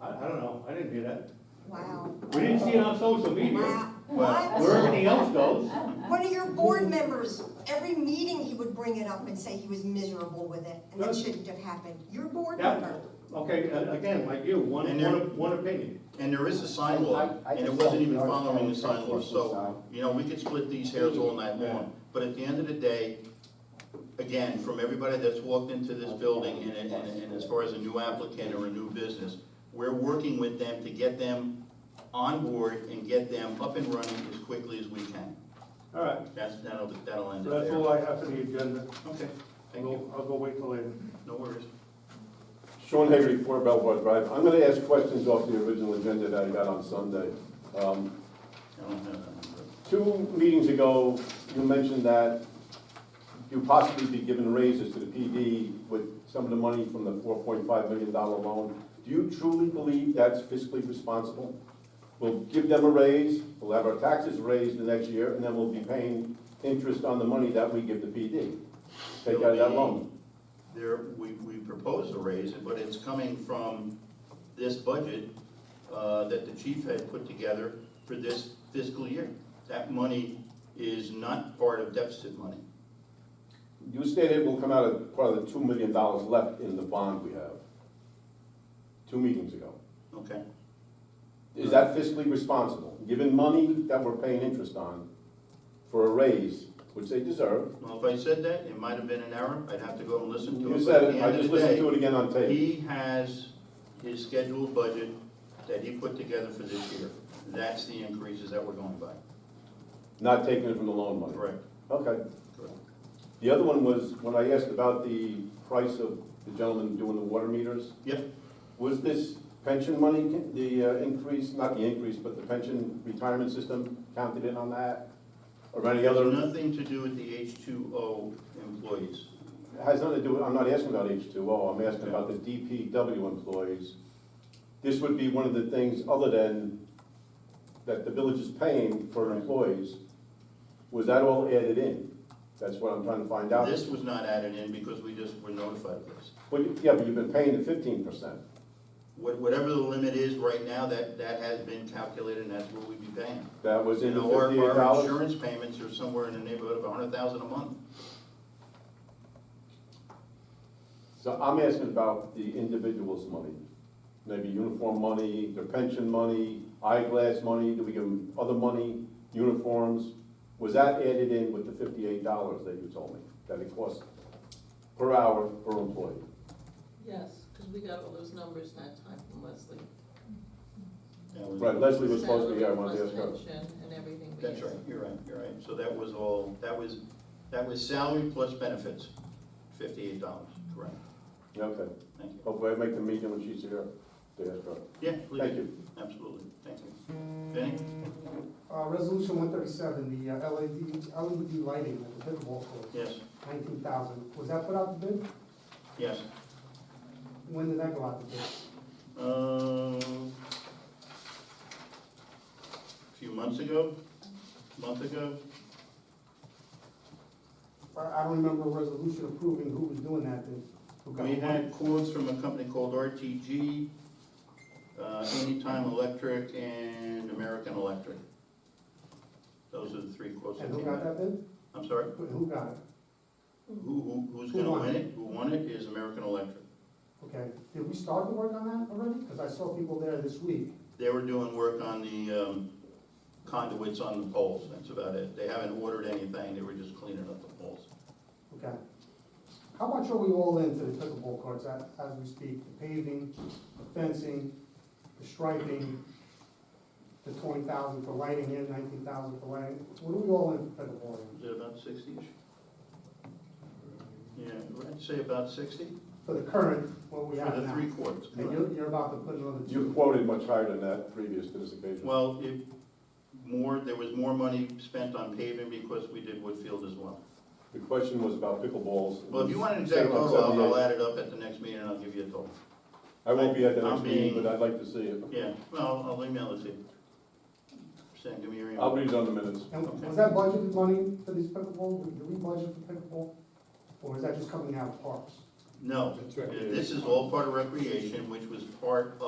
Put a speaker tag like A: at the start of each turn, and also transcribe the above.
A: I don't know, I didn't do that.
B: Wow.
A: We didn't see it on social media,
B: Wow.
A: but
B: What?
A: where everything else goes,
B: One of your board members, every meeting he would bring it up and say he was miserable with it, and that
A: Good.
B: shouldn't have happened. Your board
A: That-
B: member.
A: okay, a- again, like you, one,
C: And you're-
A: one, one opinion.
C: And there is a sign law,
D: I- I
C: and it
D: just
C: wasn't
D: don't
C: even
D: know.
C: following the sign law,
D: Sign.
C: so, you know, we could split these hairs all night long. But at the end of the day, again, from everybody that's walked into this building, and, and, and and as far as a new applicant or a new business, we're working with them to get them on board and get them up and running as quickly as we can.
E: All right,
C: That's, that'll, that'll end
E: so
C: it
E: that's all
C: there.
E: I have for the agenda.
C: Okay,
E: I'll
C: thank you,
E: go, I'll go wait till later.
C: no worries.
F: Sean Hagerty, Four Belvoir Drive. I'm gonna ask questions off the original agenda that I got on Sunday. Um,
C: I don't have that number.
F: Two meetings ago, you mentioned that you possibly be giving raises to the PD with some of the money from the four point five million dollar loan. Do you truly believe that's fiscally responsible? We'll give them a raise, we'll have our taxes raised the next year, and then we'll be paying interest on the money that we give the PD. Take out that loan.
C: There, we, we proposed to raise it, but it's coming from this budget, uh, that the chief had put together for this fiscal year. That money is not part of deficit money.
F: You stated it will come out of part of the two million dollars left in the bond we have, two meetings ago.
C: Okay,
F: Is that fiscally responsible, given money that we're paying interest on for a raise, which they deserve?
C: well, if I said that, it might have been an error, I'd have to go and listen to it.
F: You
C: but at
F: said
C: the
F: it, I
C: end of
F: just
C: the
F: listened
C: day,
F: to it again on tape.
C: He has his scheduled budget that he put together for this year. That's the increases that we're going by.
F: Not taking it from the loan money.
C: Correct,
F: Okay.
C: correct.
F: The other one was, when I asked about the price of the gentleman doing the water meters,
C: Yep,
F: was this pension money, the uh, increase, not the increase, but the pension retirement system counted in on that? Or any
C: has
F: other?
C: nothing to do with the H two O employees.
F: Has nothing to do, with I'm not asking about H2O, I'm asking about the DPW employees. This would be one of the things, other than that the village is paying for employees, was that all added in? That's what I'm trying to find out.
C: This was not added in because we just were notified of this.
F: But, you- yeah, but you've been paying the fifteen percent.
C: What- Whatever the limit is right now, that, that has been calculated and that's what we'd be paying.
F: That was in
C: And
F: the
C: our,
F: fifty-eight
C: our
F: dollars?
C: insurance payments are somewhere in the neighborhood of a hundred thousand a month.
F: So I'm asking about the individuals' money. Maybe uniform money, their pension money, eyeglass money, do we give them other money, uniforms? Was that added in with the fifty-eight dollars that you told me, that it costs per hour per employee?
G: Yes, because we got all those numbers that time from Leslie.
C: That was-
F: Right, Leslie was supposed to be here, I wanted to ask
G: Salary
F: her.
G: plus pension and everything. we
C: That's
G: had.
C: right, you're right, you're right. So that was all, that was, that was salary plus benefits, fifty-eight dollars, correct.
F: Okay,
C: Thank you.
F: hopefully I make the meeting when she's here, to ask her.
C: Yeah, please.
F: Thank you.
C: Absolutely, thank you. Vinnie?
H: Uh, resolution one thirty-seven, the uh, LED, LED lighting at the pickleball court,
C: Yes,
H: nineteen thousand, was that put out to bid?
C: yes.
H: When did that go out to bid?
C: Um, few months ago, month ago.
H: I, I don't remember a resolution approving who was doing that, then. who got
C: We
H: the
C: had quotes from a company called RTG, uh, Anytime Electric and American Electric. Those are the three
H: one.
C: quotes that
H: And who
C: came
H: got
C: out.
H: that bid?
C: I'm sorry,
H: Who- Who got it?
C: who, who, who's
H: Who
C: gonna
H: won?
C: win it? Who won it is American Electric.
H: Okay, did we start to work on that already? Because I saw people there this week.
C: They were doing work on the um, conduits on the poles, that's about it. They haven't ordered anything, they were just cleaning up the poles.
H: Okay. How much are we all into the pickleball courts as, as we speak? The paving, the fencing, the striping, the twenty thousand for lighting in, nineteen thousand for lighting? What are we all in for pickleball in?
C: Is it about sixty-ish? Yeah, I'd say about sixty,
H: For the current, what we
C: for
H: have
C: the
H: now?
C: three quarters.
H: And you're, you're about to put another
F: You
H: two.
F: quoted much higher than that previous to this occasion.
C: Well, if more, there was more money spent on paving because we did Woodfield as well.
F: The question was about pickleballs.
C: Well, if you want an exact total, I'll- I'll add it up at the next meeting and I'll give you a total.
F: I won't be at the next
C: I'm
F: meeting,
C: being-
F: but I'd like to see it.
C: Yeah, well, I'll email it to you. Send, give me your
F: I'll
C: email.
F: read it on the minutes.
H: And was that budgeted money for these pickleball? Did we budget for pickleball? Or is that just coming out of parks?
C: No,
E: That's right.
C: this is all part of recreation, which was part of.